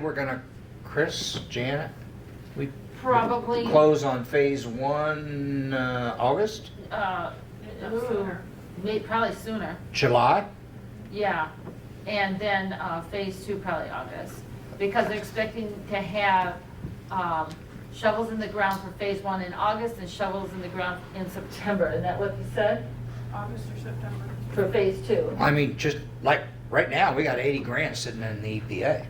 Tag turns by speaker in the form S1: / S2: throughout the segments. S1: We're gonna, Chris, Janet, we
S2: Probably,
S1: close on phase one, uh, August,
S2: uh, ooh,
S3: sooner.
S2: may, probably sooner,
S1: July?
S2: yeah. And then, uh, phase two probably August, because they're expecting to have, um, shovels in the ground for phase one in August and shovels in the ground in September, isn't that what you said?
S3: August or September.
S2: For phase two?
S1: I mean, just like, right now, we got eighty grand sitting in the EPA,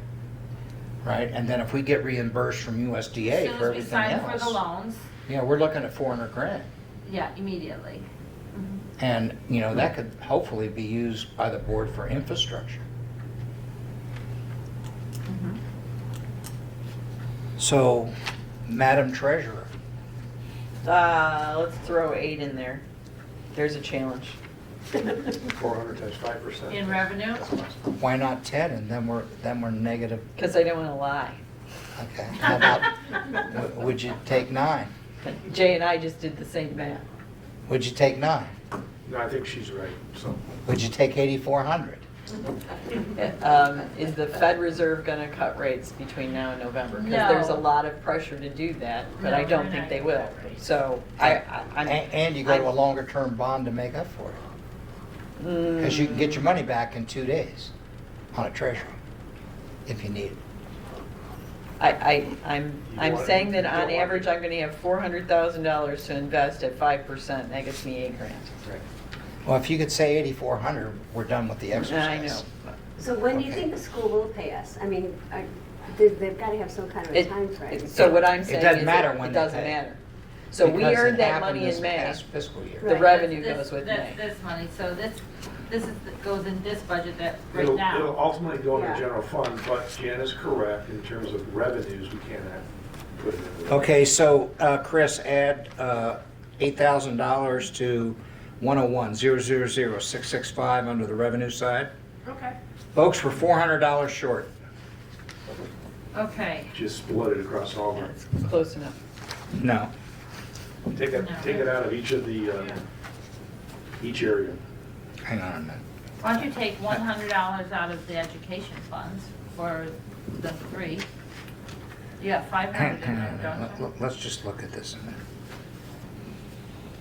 S1: right? And then if we get reimbursed from USDA for everything
S2: As soon as we sign for the
S1: else.
S2: loans,
S1: Yeah, we're looking at four hundred grand.
S2: yeah, immediately.
S1: And, you know, that could hopefully be used by the board for infrastructure.
S2: Mm-hmm.
S1: So, Madam Treasurer,
S4: Uh, let's throw eight in there. There's a challenge.
S5: Four hundred times five percent.
S2: In revenue?
S1: why not ten and then we're, then we're negative
S4: Because I don't want to lie.
S1: Okay, how about, w- would you take nine?
S4: But Jay and I just did the same math.
S1: Would you take nine?
S5: No, I think she's right, so.
S1: Would you take eighty-four hundred?
S4: Um, is the Fed Reserve going to cut rates between now and November?
S2: No.
S4: Because there's a lot of pressure to do that, but I
S2: No,
S4: don't
S2: they're
S4: think
S2: not
S4: they
S2: gonna
S4: will.
S2: cut rates.
S4: So I, I, I'm.
S1: And you go to a longer-term bond to make up for it,
S4: mm,
S1: because you can get your money back in two days on a treasury, if you need it.
S4: I, I, I'm,
S5: You
S4: I'm
S5: want-
S4: saying that
S5: you
S4: on
S5: want-
S4: average, I'm going to have four hundred thousand dollars to invest at five percent. That gets me eight grand.
S1: Well, if you could say eighty-four hundred, we're done with the
S4: I
S1: exercise.
S4: know.
S6: So when do you
S1: Okay.
S6: think the school will pay us? I mean, are- they- they've got to have some kind of a
S4: It-
S6: timeframe.
S4: it- So what I'm
S1: It
S4: saying
S1: doesn't
S4: is
S1: matter
S4: it-
S1: when
S4: it
S1: they
S4: doesn't
S1: pay.
S4: matter. So we
S1: Because it
S4: earned that
S1: happened
S4: money
S1: this
S4: in May.
S1: past fiscal year.
S6: Right.
S4: The revenue
S2: This-
S4: goes with
S2: this-
S4: May.
S2: This money, so this, this is, goes in this budget that, right
S5: It'll,
S2: now.
S5: it'll ultimately go into the
S6: Yeah.
S5: general fund, but Jan is correct in terms of revenues, we cannot put it in. the-
S1: Okay, so, uh, Chris, add, uh, eight thousand dollars to one oh one, zero, zero, zero, six, six, five under the revenue side.
S3: Okay.
S1: Folks, we're four hundred dollars short.
S2: Okay.
S5: Just split it across all of them.
S4: It's Close enough.
S1: No.
S5: Take it, take it out of each of the, uh,
S3: Yeah.
S5: each area.
S1: Hang on a minute.
S2: Why don't you take one hundred dollars out of the education funds for the three? You got five
S1: Hang
S2: hundred
S1: hang
S2: in
S1: on a
S2: there,
S1: minute. Let-
S2: don't you?
S1: let- Let's just look at this a minute.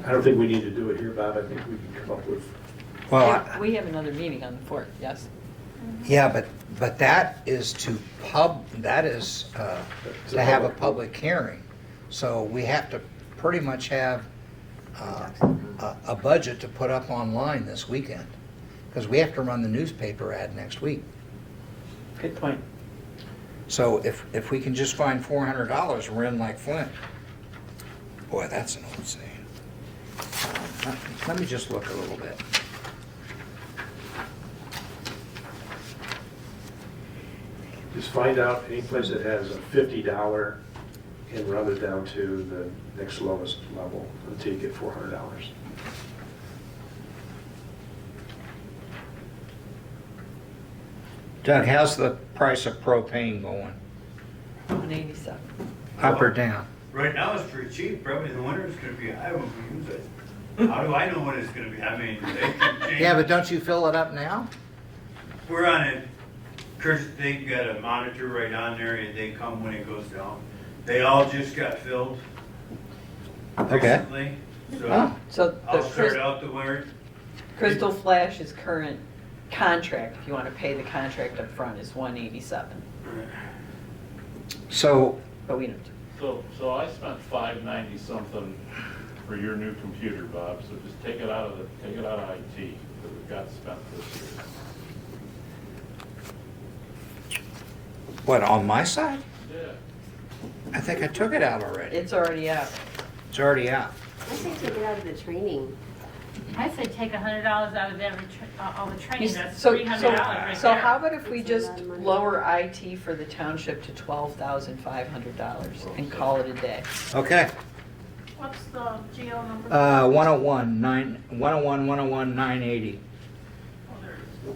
S5: I don't think we need to do it here, Bob, I think we can come up with,
S1: Well, I-
S4: We have another meeting on the fourth, yes?
S1: yeah, but, but that is to pub, that is uh,
S5: It's a
S1: to have a
S5: public-
S1: public hearing. So we have to pretty much have uh, a a budget to put up online this weekend, because we have to run the newspaper ad next week.
S4: Good point.
S1: So if, if we can just find four hundred dollars, we're in like Flint. Boy, that's an old saying. Um, let- Let me just look a little bit.
S5: just find out any place that has a fifty dollar and run it down to the next lowest level until you get four hundred dollars.
S1: Doug, how's the price of propane going?
S4: One eighty-seven.
S1: Up or down?
S7: Right now, it's pretty cheap, probably in the winter it's gonna be high when we use it. How do I know when it's gonna be, I mean, they can change.
S1: Yeah, but don't you fill it up now?
S7: We're on it, Chris, they got a monitor right on there, and they come when it goes down. They all just got filled
S1: Okay.
S7: recently, so
S1: Oh,
S4: So the
S7: I'll start
S4: Crys-
S7: out the winter.
S4: Crystal Flash is current contract, if you want to pay the contract up front, is one eighty-seven,
S1: so,
S4: but we don't.
S8: So, so I spent five ninety something for your new computer, Bob, so just take it out of the, take it out of IT that we've got spent this year.
S1: what, on my side?
S8: Yeah.
S1: I think I took it out already.
S4: It's already out.
S1: It's already out.
S6: I say take it out of the training.
S2: I say take a hundred dollars out of every, tr- uh, all the
S4: You
S2: training,
S4: s-
S2: that's
S4: so-
S2: three hundred dollars right there.
S4: So so how about if we
S6: It's a lot
S4: just
S6: of money.
S4: lower IT for the township to twelve thousand five hundred dollars and call it a day?
S1: Okay.
S3: What's the GO number?
S1: Uh, 101, 9, 101, 101, 980.
S3: Oh, there it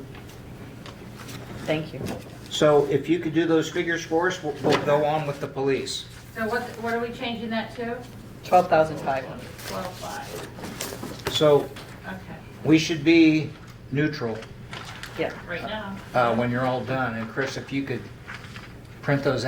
S3: is.
S4: Thank you.
S1: So if you could do those figures for us, we'll, we'll go on with the police.
S2: So what, what are we changing that to?
S4: Twelve thousand five hundred.
S2: Twelve five,
S1: So
S2: okay,
S1: we should be neutral
S4: Yeah.
S2: right now.
S1: uh, when you're all done. And Chris, if you could print those out.